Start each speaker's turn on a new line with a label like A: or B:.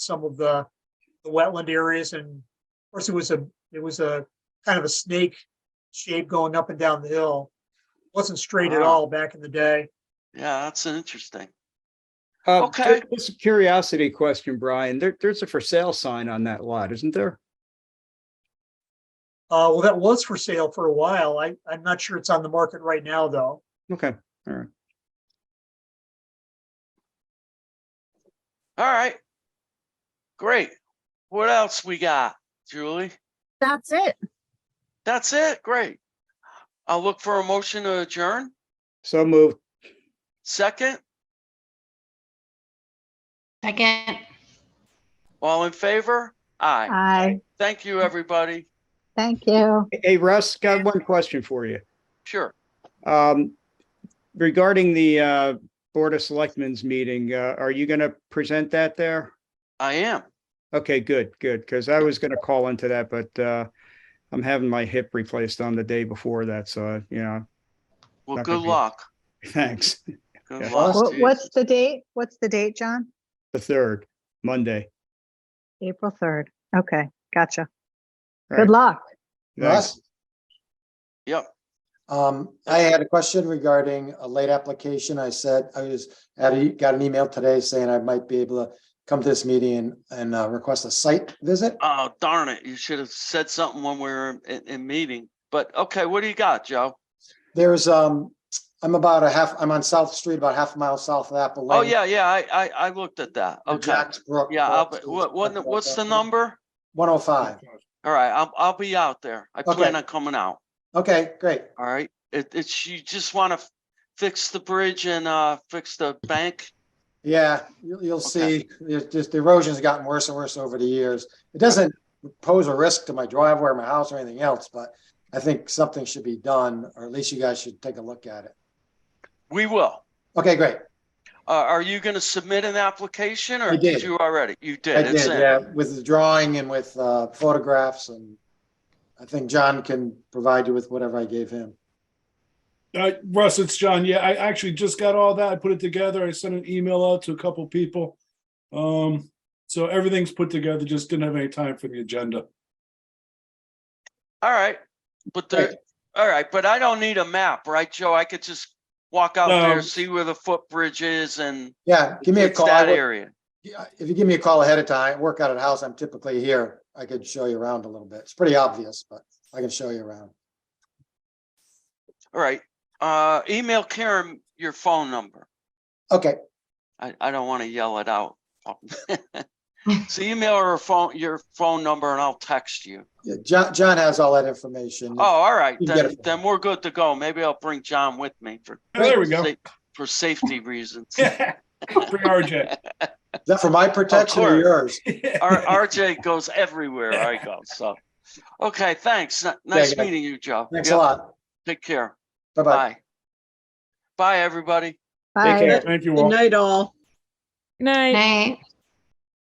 A: some of the the wetland areas and of course it was a, it was a kind of a snake shape going up and down the hill. Wasn't straight at
B: Wow.
A: all back in the day.
B: Yeah, that's interesting.
C: Uh,
B: Okay.
C: ju- Just a curiosity question, Brian. There, there's a for sale sign on that lot, isn't there?
A: Uh, well, that was for sale for a while. I, I'm not sure it's on the market right now, though.
C: Okay.
B: All right. Great. What else we got, Julie?
D: That's it.
B: That's it. Great. I'll look for a motion to adjourn.
C: So moved.
B: Second,
E: Second.
B: all in favor? Aye.
D: Hi,
B: Thank you, everybody.
D: thank you.
C: Hey, Russ, got one question for you.
B: Sure.
C: Um, regarding the, uh, Board of Selectmen's meeting, uh, are you going to present that there?
B: I am.
C: Okay, good, good. Cause I was going to call into that, but, uh, I'm having my hip replaced on the day before that. So, you know,
B: Well,
C: Not
B: good
C: gonna be-
B: luck.
C: thanks.
B: Good
C: Yeah.
B: luck.
D: What-
B: to you.
D: What's the date? What's the date, John?
C: The third, Monday.
D: April 3rd. Okay, gotcha.
C: Right.
D: Good luck.
C: Thanks.
F: Russ?
B: Yep.
F: Um, I had a question regarding a late application. I said, I was, had a- got an email today saying I might be able to come to this meeting and, and uh, request a site visit.
B: Oh, darn it. You should have said something when we were in, in meeting. But okay, what do you got, Joe?
F: There's, um, I'm about a half, I'm on South Street, about half a mile south of Apple Lane.
B: Oh, yeah, yeah. I, I, I looked at that.
F: near
B: Okay.
F: Jack's Brook.
B: Yeah. I'll be- What, what, what's the number?
F: One oh five.
B: All right. I'll, I'll be out there. I plan
F: Okay.
B: on coming out.
F: Okay, great.
B: All right, it, it's, you just want to fix the bridge and, uh, fix the bank.
F: Yeah, you'll, you'll
B: Okay.
F: see, there's just the erosion's gotten worse and worse over the years. It doesn't pose a risk to my driveway or my house or anything else, but I think something should be done, or at least you guys should take a look at it.
B: We will.
F: Okay, great.
B: Uh, are you going to submit an application or
F: I
B: did
F: did.
B: you already? You
F: I
B: did.
F: did,
B: It's in.
F: yeah, with the drawing and with uh, photographs and I think John can provide you with whatever I gave him.
G: Uh, Russ, it's John. Yeah, I actually just got all that. I put it together. I sent an email out to a couple people. Um, so everything's put together. Just didn't have any time for the agenda.
B: All right, but there,
F: Right.
B: all right, but I don't need a map, right, Joe? I could just walk out there,
G: No.
B: see where the footbridge is and
F: Yeah, give me a
B: it's
F: call. I
B: That
F: would-
B: area.
F: yeah, If you give me a call ahead of time, work out at the house, I'm typically here. I could show you around a little bit. It's pretty obvious, but I can show you around.
B: All right, uh, email Karen your phone number.
F: Okay,
B: I, I don't want to yell it out. So email her phone, your phone number and I'll text you.
F: Yeah, John, John has all that information.
B: Oh, all right,
F: You can get
B: then,
F: it.
B: then we're good to go. Maybe I'll bring John with me for.
G: Oh, There we go.
B: sa- For safety reasons.
G: Bring RJ.
F: Is that for my protection or
B: course.
F: yours?
B: R- RJ goes everywhere I go, so. Okay, thanks. N- Nice
F: guys.
B: meeting you, Joe.
F: Thanks a
B: Yep,
F: lot.
B: Take care.
F: Bye-bye.
B: Bye. Bye, everybody.
D: Bye.
C: care.
G: Thank you
H: Good
G: all.
H: night, all.
E: Night.